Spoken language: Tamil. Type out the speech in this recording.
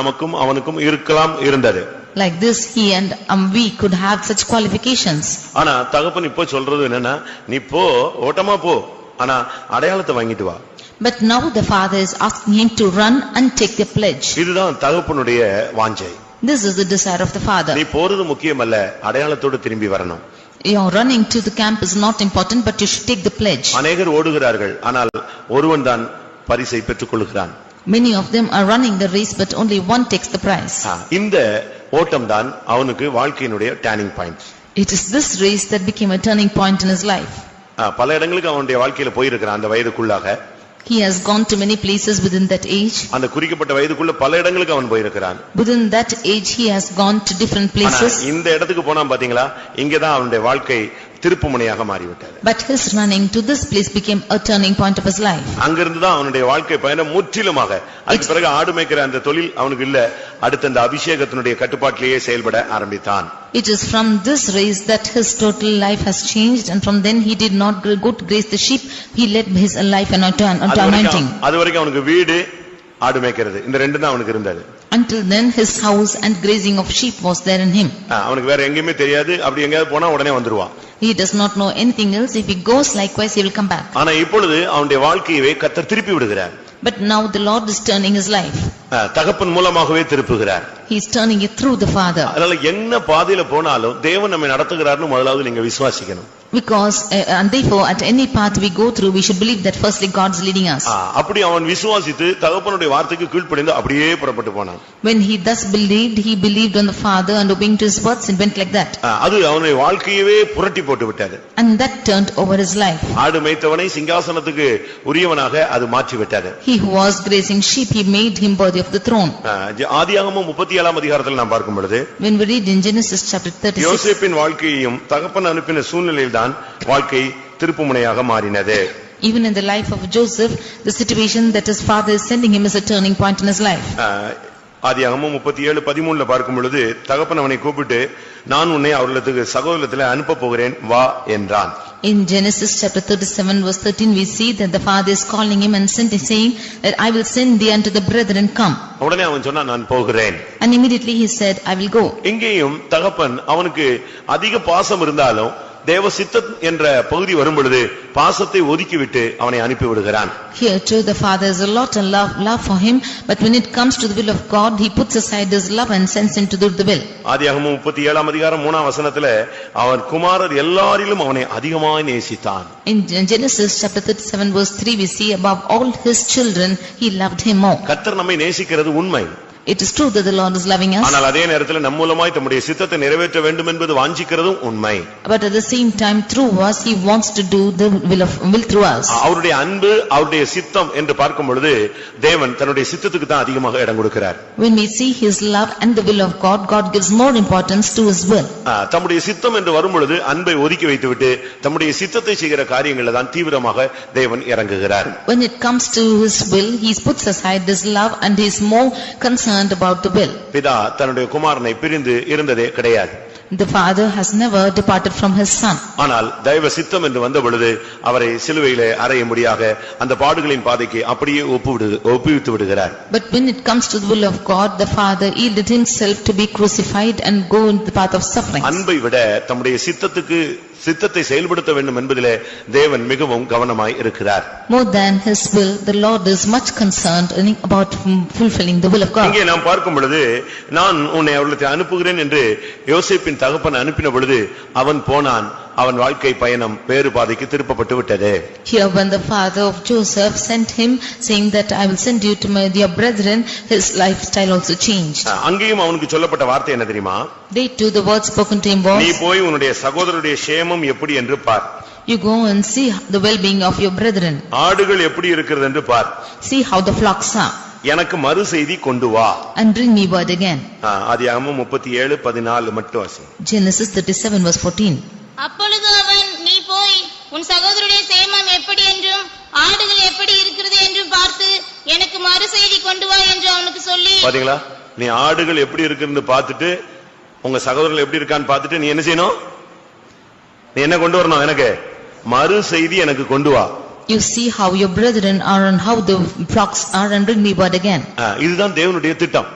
நமக்கும் அவனுக்கும் இருக்கலாம் இருந்தது Like this, he and um, we could have such qualifications. ஆனா தகப்பன் இப்போ சொல்றது என்னன்னா நீ போ ஓட்டமா போ ஆனா அடையாளத்தை வாங்கிட்டு வா But now the father is asking him to run and take the pledge. இதுதான் தகப்பனுடைய வாஞ்சை This is the desire of the நீ father. போறது முக்கியமல்ல அடையாளத்தோடு திரும்பி வரணும் Your running to the camp is not important, but you should take the pledge. அநேகர் ஓடுகிறார்கள் ஆனால் ஒருவன் தான் பரிசை பெற்றுக் கொள்கிறான் Many of them are running the race, but only one takes the prize. ஆ, இந்த ஓட்டம் தான் அவனுக்கு வாழ்க்கையினுடைய turning point It is this race that became a turning point in his life. பல இடங்களுக்கு அவனுடைய வாழ்க்கையில போயிருக்கிறான் அந்த வயதுக்குள்ளாக He has gone to many places within that age. அந்த குறிக்கப்பட்ட வயதுக்குள்ள பல இடங்களுக்கு அவன் போயிருக்கிறான் Within that age, he has gone to different ஆனா places. இந்த இடத்துக்கு போனா பாத்தீங்களா இங்கதான் அவனுடைய வாழ்க்கை திருப்புமுனையாக மாறிவிட்டது But his running to this place became a turning point of his life. அங்கிருந்து தான் அவனுடைய வாழ்க்கை பயணம் முற்றிலுமாக அதுக்கு பிறகு ஆடு மேய்க்கிற அந்த தொழில் அவனுக்கு இல்ல அடுத்த அந்த அபிஷேகத்தினுடைய கட்டுப்பாட்டிலேயே செயல்பட ஆரம்பித்தான் It is from this race that his total life has changed and from then he did not go to graze the sheep. He led his life and unto அது unto வரைக்கும் anointing. அது வரைக்கும் அவனுக்கு வீடு ஆடு மேய்க்கிறது இந்த ரெண்டு தான் அவனுக்கு இருந்தது Until then, his house and grazing of sheep was there in him. ஆ, அவனுக்கு வேற எங்கேயுமே தெரியாது அப்படி எங்கேயாவது போனா உடனே வந்துருவான் He does not know anything else. If he goes likewise, he will come back. ஆனா இப்பொழுது அவனுடைய வாழ்க்கையவே கத்தர் திருப்பி விடுகிறார் But now the Lord is turning his life. ஆ, தகப்பன் மூலமாகவே திருப்புகிறார் He is turning it through the Father. அதனால என்ன பாதையில போனாலும் தேவன் நம்மை நடத்துகிறார்னு முதலாவது நீங்க விசுவாசிக்கணும் Because, uh, and therefore, at any path we go through, we should believe that firstly God is leading us. ஆ, அப்படி அவன் விசுவாசித்து தகப்பனுடைய வார்த்தைக்கு கீழ்ப்படிந்து அப்படியே புறப்பட்டு போனான் When he thus believed, he believed on the Father and obeying to his words, it went like that. ஆ, அது அவனுடைய வாழ்க்கையவே புரட்டி போட்டு விட்டது And that turned over his life. ஆடு மேய்த்தவனை சிங்காசனத்துக்கு உரியவனாக அது மாற்றி விட்டது He who was grazing sheep, he made him worthy of the throne. ஆ, ஜ- ஆதியாகமம் முப்பத்தி ஏழாம் அதிகாரத்தில் நாம் பார்க்கும் பொழுது When we read in Genesis chapter 36, யோசேப்பின் வாழ்க்கையையும் தகப்பன் அனுப்பின சூழ்நிலையில்தான் வாழ்க்கை திருப்புமுனையாக மாறினது even in the life of Joseph, the situation that his father is sending him is a turning point in his life. ஆ, ஆதியாகமம் முப்பத்தி ஏழு பதிமூணுல பார்க்கும் பொழுது தகப்பன் அவனை கூப்பிட்டு நான் உன்னை அவர்களுக்கு சகோதரத்தில் அனுப்பப் போகிறேன் வா என்றான் In Genesis chapter 37 verse 13, we see that the father is calling him and sending, saying that I will send thee unto the brethren, come. உடனே அவன் சொன்னா நான் போகிறேன் And immediately he said, I will go. இங்கேயும் தகப்பன் அவனுக்கு அதிக பாசம் இருந்தாலும் தேவ சித்தம் என்ற பகுதி வரும் பொழுது பாசத்தை ஒதுக்கிவிட்டு அவனை அனுப்பி விடுகிறான் Here too the father has a lot of love, love for him, but when it comes to the will of God, he puts aside his love and sends him to do the will. ஆதியாகமம் முப்பத்தி ஏழாம் அதிகாரம் மூணாம் வசனத்துல அவன் குமாரர் எல்லாரிலும் அவனை அதிகமாய் நேசித்தான் In Gen- Genesis chapter 37 verse 3 we see above all his children he loved him more. கர்த்தர் நம்மை நேசிக்கிறது உண்மை It is true that the Lord is loving us ஆனால் அதே நேரத்தில் நம் மூலமாய் தம்முடைய சித்தத்தை நிறைவேற்ற வேண்டும் என்பது வாஞ்சிக்கிறதும் உண்மை but at the same time through us he wants to do the will of will through us. அவருடைய அன்பு அவருடைய சித்தம் என்று பார்க்கும் பொழுது தேவன் தன்னுடைய சித்தத்துக்கு தான் அதிகமாக இடம் கொடுக்கிறார் When we see his love and the will of God God gives more importance to his will. ஆ, தம்முடைய சித்தம் என்று வரும்பொழுது அன்பை ஒதுக்கி வைத்துவிட்டு தம்முடைய சித்தத்தை செய்கிற காரியங்களில் தான் தீவிரமாக தேவன் இறங்குகிறார் When it comes to his will he puts aside his love and he is more concerned about the will. பிதா தன்னுடைய குமாரனை பிரிந்து இருந்ததே கிடையாது The father has never departed from his son. ஆனால் தெய்வ சித்தம் என்று வந்த பொழுது அவரை சிலுவையிலே அறையும்படியாக அந்த பாடுகளின் பாதைக்கு அப்படியே ஒப்புவிடு ஒப்புவித்து விடுகிறார் But when it comes to the will of God the father yielded himself to be crucified and go in the path of suffering. அன்பை விட தம்முடைய சித்தத்துக்கு சித்தத்தை செயல்படுத்த வேண்டும் என்பதிலே தேவன் மிகவும் கவனமாய் இருக்கிறார் More than his will, the Lord is much concerned in- about fulfilling the will of God. இங்கே நாம் பார்க்கும் பொழுது நான் உன்னை அவர்களுக்கு அனுப்புகிறேன் என்று யோசேப்பின் தகப்பன் அனுப்பின பொழுது அவன் போனான் அவன் வாழ்க்கை பயணம் வேறு பாதைக்கு திருப்பப்பட்டு விட்டது Here when the father of Joseph sent him saying that I will send you to my dear brethren, his lifestyle also changed. அஹ், அங்கேயும் அவனுக்கு சொல்லப்பட்ட வார்த்தை என்ன தெரியுமா They too, the word spoken to him நீ was, போய் உன்னுடைய சகோதரருடைய சேமம் எப்படி என்று பார் you go and see the well-being of your brethren, ஆடுகள் எப்படி இருக்கிறது என்று பார் see how the flocks are எனக்கு மறு செய்தி கொண்டு வா and bring me word again. அதிகமும் முப்பத்தி ஏழு பதினாலு மட்டும் வாசி Genesis 37 verse 14. அப்பொழுது அவன் நீ போய் உன் சகோதரருடைய சேமம் எப்படி என்றும் ஆடுகள் எப்படி இருக்கிறது என்றும் பார்த்து எனக்கு மறு செய்தி கொண்டு வா என்று அவனுக்கு சொல்லி பாத்தீங்களா நீ ஆடுகள் எப்படி இருக்குன்னு பார்த்துட்டு உங்க சகோதரர்கள் எப்படி இருக்கான்னு பார்த்துட்டு நீ என்ன செய்யணும் நீ என்ன கொண்டு வரணும் எனக்கு மறு செய்தி எனக்கு கொண்டு வா You see how your brethren are and how the flocks are and bring me word again. ஆ, இதுதான் தேவனுடைய திட்டம்